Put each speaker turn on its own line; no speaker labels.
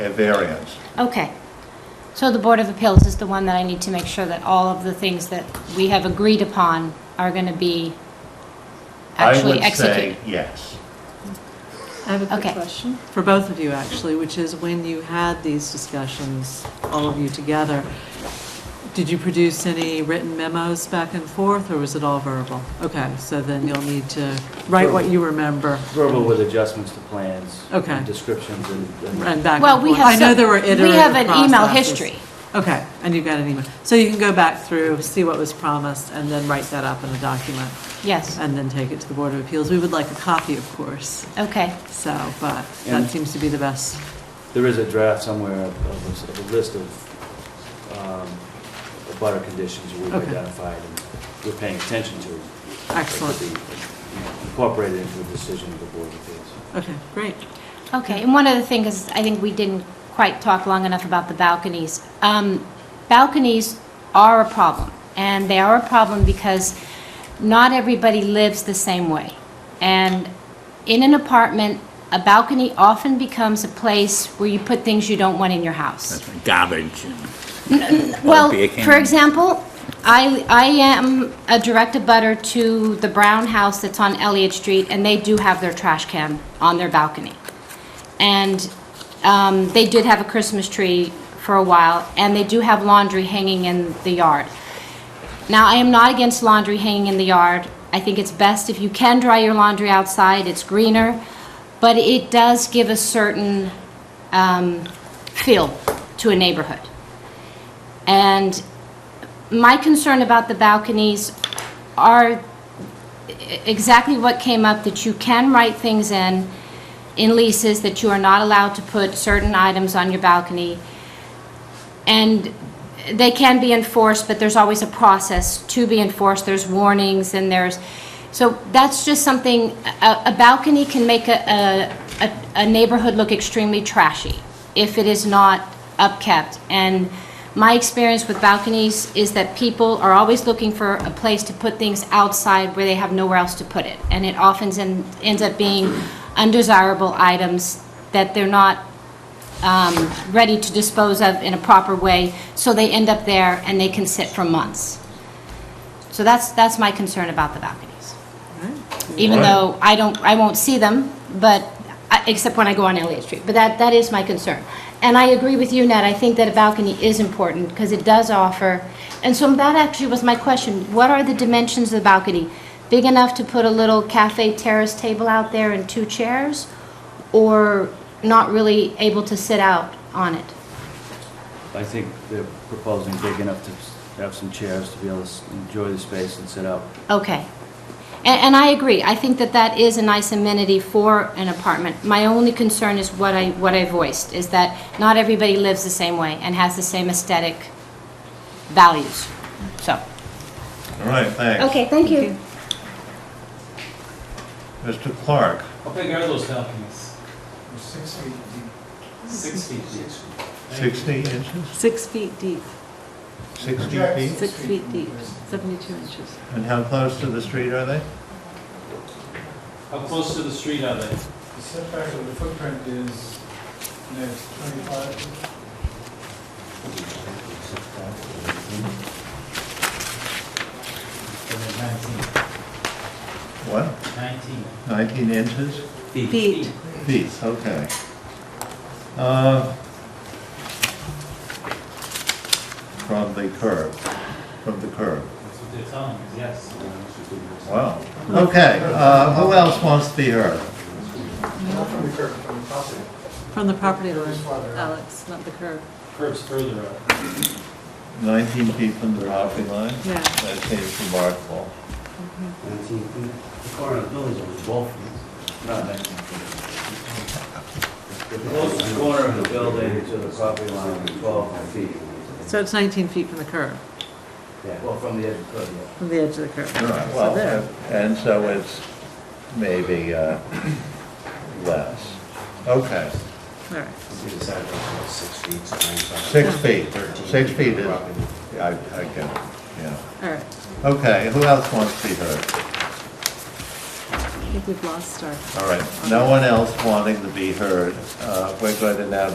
a variance.
Okay. So the Board of Appeals is the one that I need to make sure that all of the things that we have agreed upon are going to be actually
I would
executed?
say yes.
I have a
Okay.
quick question for both of you, actually, which is when you had these discussions, all of you together, did you produce any written memos back and forth, or was it all verbal? Okay, so then you'll need to write what you remember
Verbal with adjustments to plans.
Okay.
and Descriptions and.
and back and forth.
Well, we have.
I know
some-
there were
We have an
iterative
email
processes.
history.
Okay, and you've got an email. So you can go back through, see what was promised, and then write that up in a document,
Yes,
and then take it to the Board of Appeals. We would like a copy, of course,
okay.
so, but that
And-
seems to be the best.
There is a draft somewhere of- of a s- of a list of um, butter conditions we've
Okay.
identified and we're paying attention to.
Excellent.
That could be, you know, Incorporated into the decision of the Board of Appeals.
Okay, great.
Okay, and one other thing is, I think we didn't quite talk long enough about the balconies. Um, Balconies are a problem, and they are a problem because not everybody lives the same way. And in an apartment, a balcony often becomes a place where you put things you don't want in your house.
garbage.
Well,
beer can.
for example, I, I am a direct abutter to the Brown House that's on Elliott Street, and they do have their trash can on their balcony. And um, they did have a Christmas tree for a while, and they do have laundry hanging in the yard. Now, I am not against laundry hanging in the yard. I think it's best if you can dry your laundry outside, it's greener, but it does give a certain um, feel to a neighborhood. And my concern about the balconies are exactly what came up, that you can write things in, in leases, that you are not allowed to put certain items on your balcony. And they can be enforced, but there's always a process to be enforced. There's warnings and there's, so that's just something, a a balcony can make a- a, a, a neighborhood look extremely trashy if it is not upkept. And my experience with balconies is that people are always looking for a place to put things outside where they have nowhere else to put it. And it often en- ends up being undesirable items that they're not um, ready to dispose of in a proper way, so they end up there and they can sit for months. So that's, that's my concern about the balconies. Even
Right.
though I don't, I won't see them, but, I- except when I go on Elliott Street, but that, that is my concern. And I agree with you, Ned, I think that a balcony is important, because it does offer, and so that actually was my question, what are the dimensions of the balcony? Big enough to put a little cafe terrace table out there and two chairs? or not really able to sit out on it.
I think they're proposing big enough to s- have some chairs to be able to s- enjoy the space and sit out.
Okay. And, and I agree, I think that that is a nice amenity for an apartment. My only concern is what I, what I voiced, is that not everybody lives the same way and has the same aesthetic values, so.
All right, thanks.
Okay, thank you.
Mr. Clark,
How big are those balconies?
Six feet deep.
Six feet each.
60 inches,
Six feet deep,
60
Jack.
feet?
six feet deep, 72 inches.
And how close to the street are they?
How close to the street are they?
The setback of the footprint is, no, it's 25.
What,
Nineteen.
19 inches?
Feet.
Feet, okay. Uh, From the curb, from the curb.
That's what they're telling us, yes.
Wow. Okay, uh, who else wants to be heard?
Not from the curb, from the property.
From the property line,
Just farther out.
Alex, not the curb.
Curbs further up.
19 feet from the property line?
Yeah.
That seems remarkable.
The corner of the building is twelve feet. Not nineteen feet. The closest corner of the building to the property line is twelve feet.
So it's 19 feet from the curb,
Yeah, Well, from the edge of the curb, yeah.
from the edge of the curb.
All right,
So there.
Well, and so it's maybe uh, less. Okay, uh,
All right.
six feet, six feet is, I, I can, yeah.
All right,
Okay, who else wants to be heard?
I think we've lost our
All right, no one else wanting to be heard. Uh, We're going to now